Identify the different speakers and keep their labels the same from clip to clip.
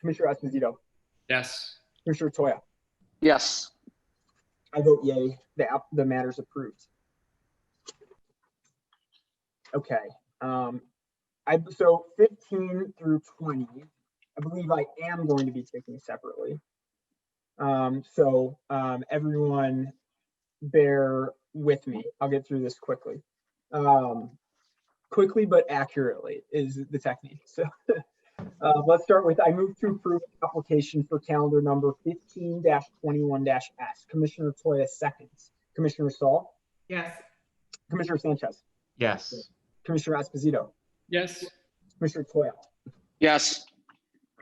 Speaker 1: Commissioner Esposito,
Speaker 2: Yes.
Speaker 1: Commissioner Toya,
Speaker 3: Yes.
Speaker 1: I vote yay, the app, the matter's approved. Okay, um, I, so fifteen through twenty, I believe I am going to be taking separately. Um, so, um, everyone bear with me, I'll get through this quickly. Um, quickly but accurately is the technique, so. Uh, let's start with, I move to approve application for calendar number fifteen twenty-one S. Commissioner Toya seconds. Commissioner Saul,
Speaker 4: yes,
Speaker 1: Commissioner Sanchez,
Speaker 5: yes,
Speaker 1: Commissioner Esposito,
Speaker 2: Yes.
Speaker 1: Commissioner Toya.
Speaker 3: Yes.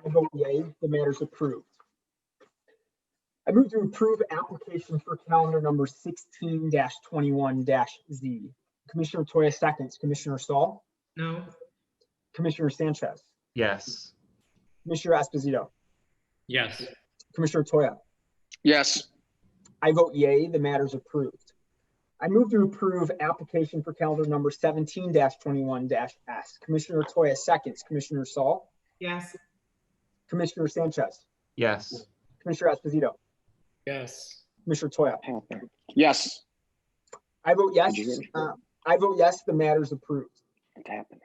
Speaker 1: I vote yea, the matter's approved. I move to approve application for calendar number sixteen twenty-one Z. Commissioner Toya seconds, Commissioner Saul,
Speaker 4: no,
Speaker 1: Commissioner Sanchez,
Speaker 5: yes,
Speaker 1: Commissioner Esposito,
Speaker 2: Yes.
Speaker 1: Commissioner Toya.
Speaker 3: Yes.
Speaker 1: I vote yea, the matter's approved. I move to approve application for calendar number seventeen 21s Commissioner Toya seconds, Commissioner Saul,
Speaker 4: yes,
Speaker 1: Commissioner Sanchez,
Speaker 5: yes,
Speaker 1: Commissioner Esposito,
Speaker 2: Yes.
Speaker 1: Commissioner Toya.
Speaker 3: Yes.
Speaker 1: I vote yes.
Speaker 3: Did you get it?
Speaker 1: uh, I vote yes, the matter's approved.
Speaker 3: It's happening.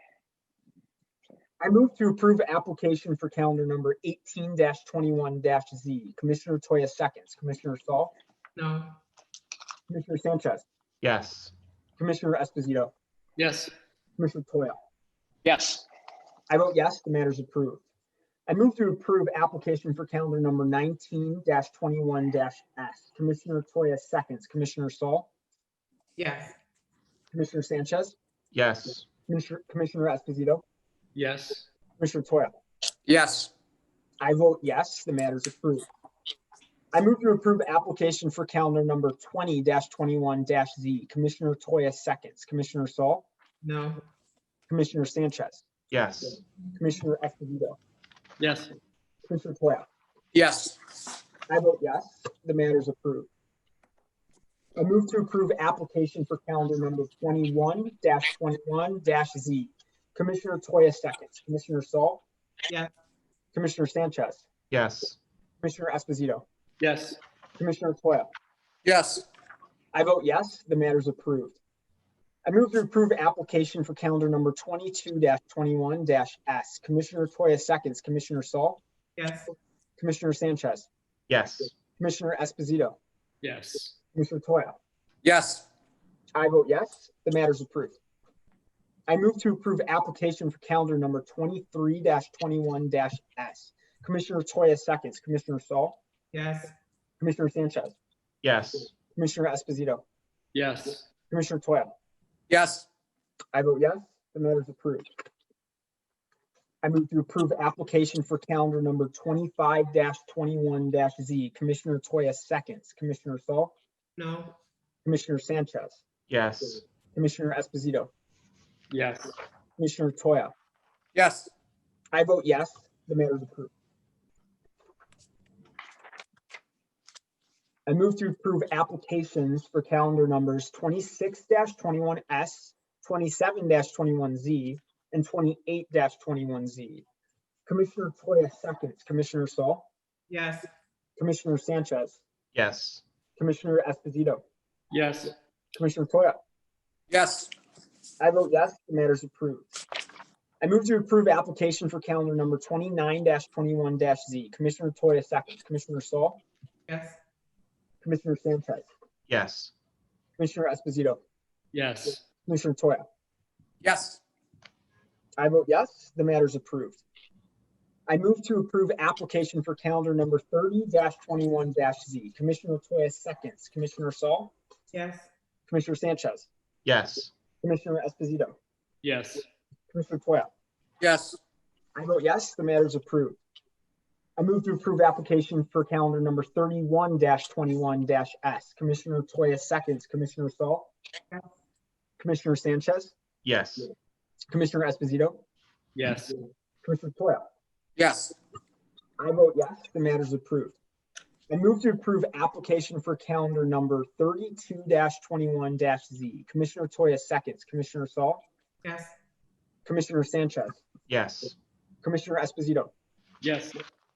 Speaker 1: I move to approve application for calendar number eighteen twenty-one Z. Commissioner Toya seconds, Commissioner Saul,
Speaker 4: no,
Speaker 1: Commissioner Sanchez,
Speaker 5: yes,
Speaker 1: Commissioner Esposito,
Speaker 2: Yes.
Speaker 1: Commissioner Toya.
Speaker 3: Yes.
Speaker 1: I vote yes, the matter is approved. I move to approve application for calendar number nineteen 21s Commissioner Toya seconds, Commissioner Saul,
Speaker 4: yes,
Speaker 1: Commissioner Sanchez,
Speaker 5: yes,
Speaker 1: Commissioner, Commissioner Esposito,
Speaker 2: Yes.
Speaker 1: Commissioner Toya.
Speaker 3: Yes.
Speaker 1: I vote yes, the matter is approved. I move to approve application for calendar number twenty twenty-one Z. Commissioner Toya seconds, Commissioner Saul,
Speaker 4: no,
Speaker 1: Commissioner Sanchez,
Speaker 5: yes,
Speaker 1: Commissioner Esposito,
Speaker 2: Yes.
Speaker 1: Commissioner Toya.
Speaker 3: Yes.
Speaker 1: I vote yes, the matter is approved. I move to approve application for calendar number twenty-one twenty-one Z. Commissioner Toya seconds, Commissioner Saul.
Speaker 4: Yes.
Speaker 1: Commissioner Sanchez,
Speaker 5: yes,
Speaker 1: Commissioner Esposito,
Speaker 2: Yes.
Speaker 1: Commissioner Toya.
Speaker 3: Yes.
Speaker 1: I vote yes, the matter is approved. I move to approve application for calendar number twenty-two twenty-one S. Commissioner Toya seconds, Commissioner Saul,
Speaker 4: yes,
Speaker 1: Commissioner Sanchez,
Speaker 5: yes,
Speaker 1: Commissioner Esposito,
Speaker 2: Yes.
Speaker 1: Commissioner Toya.
Speaker 3: Yes.
Speaker 1: I vote yes, the matter is approved. I move to approve application for calendar number twenty-three twenty-one S. Commissioner Toya seconds, Commissioner Saul,
Speaker 4: yes,
Speaker 1: Commissioner Sanchez,
Speaker 5: yes,
Speaker 1: Commissioner Esposito,
Speaker 2: Yes.
Speaker 1: Commissioner Toya.
Speaker 3: Yes.
Speaker 1: I vote yes, the matter is approved. I move to approve application for calendar number twenty-five twenty-one Z. Commissioner Toya seconds, Commissioner Saul,
Speaker 4: no,
Speaker 1: Commissioner Sanchez,
Speaker 5: yes,
Speaker 1: Commissioner Esposito,
Speaker 2: Yes.
Speaker 1: Commissioner Toya.
Speaker 3: Yes.
Speaker 1: I vote yes, the matter is approved. I move to approve applications for calendar numbers twenty-six twenty-one S, twenty-seven twenty-one Z, and twenty-eight twenty-one Z. Commissioner Toya seconds, Commissioner Saul,
Speaker 4: yes,
Speaker 1: Commissioner Sanchez,
Speaker 5: yes,
Speaker 1: Commissioner Esposito,
Speaker 2: Yes.
Speaker 1: Commissioner Toya.
Speaker 3: Yes.
Speaker 1: I vote yes, the matter is approved. I move to approve application for calendar number twenty-nine twenty-one Z. Commissioner Toya seconds, Commissioner Saul,
Speaker 4: yes,
Speaker 1: Commissioner Sanchez,
Speaker 5: yes,
Speaker 1: Commissioner Esposito,
Speaker 2: Yes.
Speaker 1: Commissioner Toya.
Speaker 3: Yes.
Speaker 1: I vote yes, the matter is approved. I move to approve application for calendar number thirty twenty-one Z. Commissioner Toya seconds, Commissioner Saul,
Speaker 4: yes,
Speaker 1: Commissioner Sanchez,
Speaker 5: yes,
Speaker 1: Commissioner Esposito,
Speaker 2: Yes.
Speaker 1: Commissioner Toya.
Speaker 3: Yes.
Speaker 1: I vote yes, the matter is approved. I move to approve application for calendar number thirty-one twenty-one S. Commissioner Toya seconds, Commissioner Saul.
Speaker 4: Yes.
Speaker 1: Commissioner Sanchez,
Speaker 5: yes,
Speaker 1: Commissioner Esposito,
Speaker 2: Yes.
Speaker 1: Commissioner Toya.
Speaker 3: Yes.
Speaker 1: I vote yes, the matter is approved. I move to approve application for calendar number thirty-two twenty-one Z. Commissioner Toya seconds, Commissioner Saul,
Speaker 4: yes,
Speaker 1: Commissioner Sanchez,
Speaker 5: yes,
Speaker 1: Commissioner Esposito,
Speaker 2: Yes.